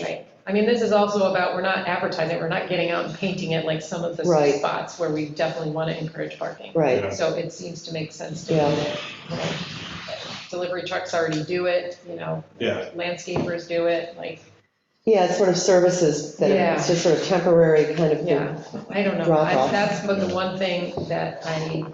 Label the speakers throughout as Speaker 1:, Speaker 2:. Speaker 1: Right. I mean, this is also about, we're not advertising, we're not getting out and painting it like some of the
Speaker 2: Right.
Speaker 1: spots where we definitely want to encourage parking.
Speaker 2: Right,
Speaker 1: So it seems to make sense to,
Speaker 2: Yeah.
Speaker 1: you know, delivery trucks already do it, you know,
Speaker 3: Yeah,
Speaker 1: landscapers do it, like,
Speaker 2: yeah, it's sort of services that are, it's just sort of temporary kind of
Speaker 1: Yeah.
Speaker 2: thing.
Speaker 1: I don't know.
Speaker 2: Drop
Speaker 1: I-
Speaker 2: off.
Speaker 1: That's but the one thing that I,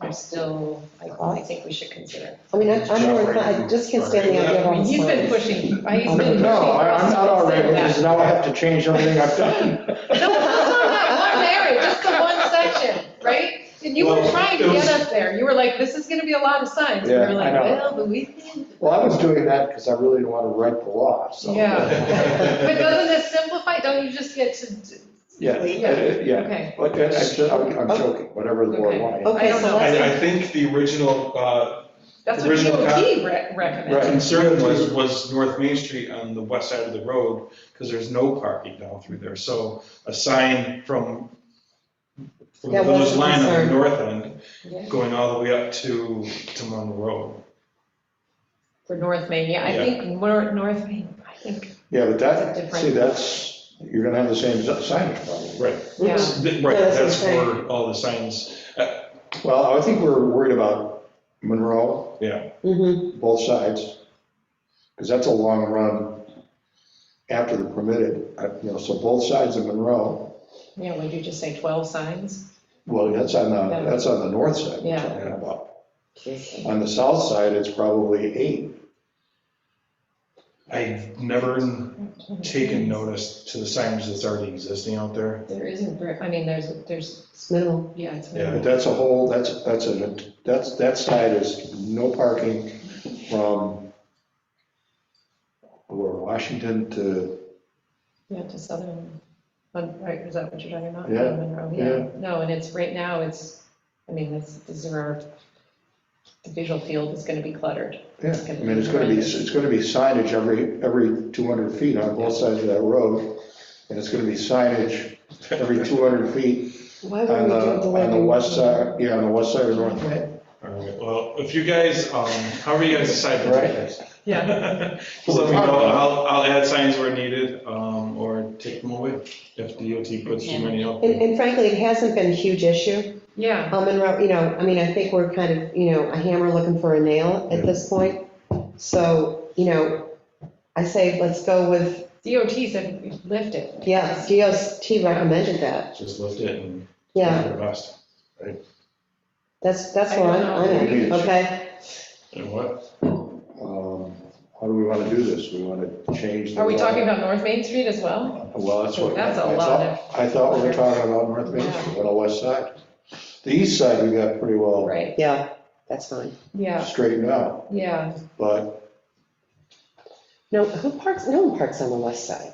Speaker 1: I'm still, I I think we should consider.
Speaker 2: I mean, I'm I'm more, I just can't stand the idea of
Speaker 1: I
Speaker 2: all
Speaker 1: mean,
Speaker 2: this
Speaker 1: you've been
Speaker 2: money.
Speaker 1: pushing, I- he's been
Speaker 2: No,
Speaker 1: pushing.
Speaker 4: No, I- I'm not all right
Speaker 1: for
Speaker 4: with
Speaker 1: us
Speaker 4: this,
Speaker 1: to
Speaker 4: now I have to change something I've done.
Speaker 1: say that. No, no, not one area, just the one section, right? And you were
Speaker 3: Well,
Speaker 1: trying to
Speaker 3: it
Speaker 1: get
Speaker 3: was-
Speaker 1: us there. You were like, this is gonna be a lot of signs. And we
Speaker 4: Yeah,
Speaker 1: were like,
Speaker 4: I know.
Speaker 1: well, but we can.
Speaker 4: Well, I was doing that because I really didn't want to write the law, so.
Speaker 1: Yeah. But
Speaker 3: Yeah.
Speaker 1: doesn't this simplify? Don't you just get to,
Speaker 4: Yeah, yeah, yeah.
Speaker 1: okay.
Speaker 4: But I- I'm jo- I'm I'm joking, whatever the board wanted.
Speaker 1: I
Speaker 2: Okay,
Speaker 1: don't
Speaker 2: so
Speaker 1: know.
Speaker 3: I,
Speaker 2: let's,
Speaker 3: I think the original, uh,
Speaker 1: That's what
Speaker 3: Original cop-
Speaker 1: DOT re- recommends.
Speaker 4: Right.
Speaker 3: concern was, was North Main Street on the west side of the road, because there's no parking down through there, so a sign from, from the
Speaker 2: That was
Speaker 3: village
Speaker 2: the
Speaker 3: line on
Speaker 2: concern.
Speaker 3: the north end,
Speaker 1: Yeah.
Speaker 3: going all the way up to, to Monroe Road.
Speaker 1: For North Main, yeah, I
Speaker 3: Yeah.
Speaker 1: think Nor- North Main, I think,
Speaker 4: Yeah, but
Speaker 1: It's
Speaker 4: that,
Speaker 1: different.
Speaker 4: see, that's, you're going to have the same signage problem.
Speaker 3: Right.
Speaker 1: yeah.
Speaker 3: Th-
Speaker 2: Yeah,
Speaker 3: Right,
Speaker 2: that's what
Speaker 3: that's
Speaker 2: I'm saying.
Speaker 3: where all the signs,
Speaker 4: Well, I think we're worried about Monroe,
Speaker 3: yeah,
Speaker 2: mhm,
Speaker 4: both sides, because that's a long run after the permitted, I- you know, so both sides of Monroe,
Speaker 1: Yeah, would you just say 12 signs?
Speaker 4: well, that's on the, that's on the north side we're
Speaker 1: Yeah.
Speaker 4: talking about. On the south side, it's probably eight.
Speaker 3: I've never taken notice to the signage that's already existing out there.
Speaker 1: There isn't, ver- I mean, there's, there's,
Speaker 2: it's minimal.
Speaker 1: yeah, it's.
Speaker 3: Yeah.
Speaker 4: But that's a whole, that's, that's a, that's, that side is no parking from or Washington to,
Speaker 1: Yeah, to Southern, um, right, is that what you're talking about?
Speaker 4: Yeah,
Speaker 1: Monroe,
Speaker 4: yeah.
Speaker 1: No, and it's, right now, it's, I mean, this, this is our, the visual field is gonna be cluttered.
Speaker 4: yeah, I mean, it's gonna be, it's gonna be signage every, every 200 feet on both sides of that road. And it's gonna be signage every 200 feet
Speaker 2: Why would
Speaker 4: on
Speaker 2: we
Speaker 4: the,
Speaker 2: do delivery?
Speaker 4: on the west side, yeah, on the west side of North Main.
Speaker 3: All right, well, if you guys, um, however you guys decide to do this. Just let me know, I'll, I'll add signs where needed, um, or take them away if DOT puts too many up.
Speaker 2: And and frankly, it hasn't been a huge issue.
Speaker 1: Yeah,
Speaker 2: Um, Monroe, you know, I mean, I think we're kind of, you know, a hammer looking for a nail at this point. So, you know, I say, let's go with,
Speaker 1: DOT said lift it.
Speaker 2: yeah, DOT recommended that.
Speaker 3: Just lift it and. do
Speaker 2: Yeah,
Speaker 3: your best.
Speaker 2: that's, that's
Speaker 1: I
Speaker 2: where I'm,
Speaker 1: don't
Speaker 2: I'm
Speaker 1: know.
Speaker 2: at, okay?
Speaker 3: And what?
Speaker 4: Um, How do we wanna do this? We wanna change the.
Speaker 1: Are we
Speaker 4: law?
Speaker 1: talking about North Main Street as well?
Speaker 4: Well, that's what.
Speaker 1: That's a
Speaker 4: I
Speaker 1: lot of-
Speaker 4: thought- I thought we were talking about North Main Street, on the west side. The east side, we got pretty
Speaker 3: Oh.
Speaker 4: well
Speaker 1: Right,
Speaker 2: Yeah, that's fine.
Speaker 1: yeah,
Speaker 4: straightened out,
Speaker 1: yeah.
Speaker 4: but
Speaker 2: No, who parks, no one parks on the west side.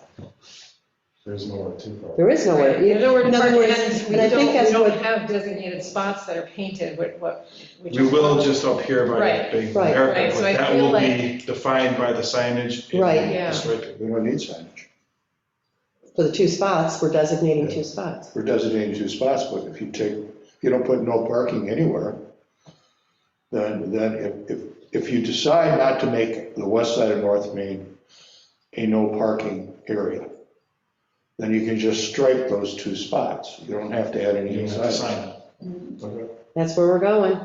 Speaker 3: There's nowhere to park.
Speaker 2: There is nowhere.
Speaker 1: Right, There's nowhere to
Speaker 2: In
Speaker 1: park,
Speaker 2: other
Speaker 1: and we
Speaker 2: words,
Speaker 1: don't, we
Speaker 2: and I think that's
Speaker 1: don't
Speaker 2: what,
Speaker 1: have designated spots that are painted, what, what.
Speaker 3: We will just up here by
Speaker 1: Right,
Speaker 3: that big
Speaker 2: right,
Speaker 1: right,
Speaker 3: parapet,
Speaker 1: so
Speaker 3: but
Speaker 1: I
Speaker 3: that
Speaker 1: feel
Speaker 3: will
Speaker 1: like-
Speaker 3: be defined by the signage. and
Speaker 2: Right.
Speaker 3: the
Speaker 1: Yeah.
Speaker 3: striping.
Speaker 4: we don't need signage.
Speaker 2: for the two spots, we're designating two spots.
Speaker 4: We're designating two spots, but if you take, if you don't put no parking anywhere, then, then if, if, if you decide not to make the west side of North Main a no parking area, then you can just stripe those two spots. You don't have to add
Speaker 3: You
Speaker 4: any
Speaker 3: don't have to
Speaker 4: signage.
Speaker 3: sign
Speaker 2: Mm-hmm.
Speaker 3: it. Okay.
Speaker 2: That's where we're going.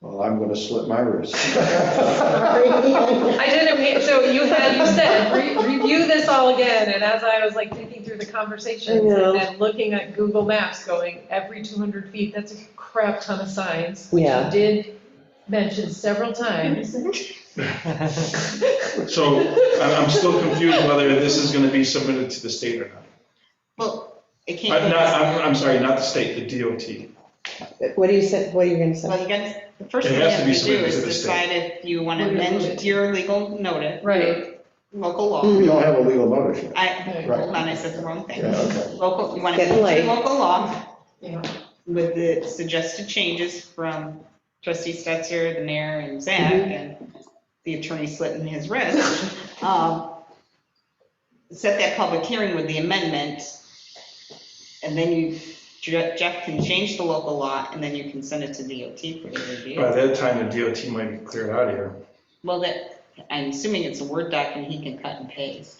Speaker 4: Well, I'm gonna slip my wrist.
Speaker 1: I didn't, mean- so you had, you said, "Re- review this all again, and as I was like thinking through the conversations
Speaker 2: I know.
Speaker 1: and then looking at Google Maps going, every two hundred feet, that's a crap ton of signs. which you
Speaker 2: Yeah.
Speaker 1: Did mention several times.
Speaker 3: So I'm, I'm still confused whether this is gonna be submitted to the state or not.
Speaker 5: Well, it can't.
Speaker 3: I'm not, I'm, I'm sorry, not the state, the DOT.
Speaker 2: What do you say, what are you gonna
Speaker 5: Well,
Speaker 2: say?
Speaker 5: you guys, the first
Speaker 3: It
Speaker 5: thing you
Speaker 3: has to
Speaker 5: have
Speaker 3: be
Speaker 5: to do
Speaker 3: submitted to
Speaker 5: is
Speaker 3: the state.
Speaker 5: decide if you want
Speaker 1: We're
Speaker 5: to
Speaker 1: gonna move
Speaker 5: amend
Speaker 1: it.
Speaker 5: your legal notice,
Speaker 1: Right.
Speaker 5: local law.
Speaker 2: Mm.
Speaker 4: We don't have a legal notice yet.
Speaker 5: I,
Speaker 4: Right.
Speaker 5: hold on, I said the wrong
Speaker 4: Yeah,
Speaker 5: thing.
Speaker 4: okay.
Speaker 5: Local, you want to
Speaker 2: Getting
Speaker 5: amend
Speaker 2: late.
Speaker 5: your local law
Speaker 1: Yeah.
Speaker 5: with the suggested changes from trustee Stetser, the mayor, and Zach,
Speaker 2: Mhm.
Speaker 5: and the attorney slitting his wrist. Um, Set that public hearing with the amendment, and then you, Jeff Jeff can change the local law, and then you can send it to DOT for their review.
Speaker 3: By that time, the DOT might be cleared out of here.
Speaker 5: Well, that, I'm assuming it's a Word doc and he can cut and paste.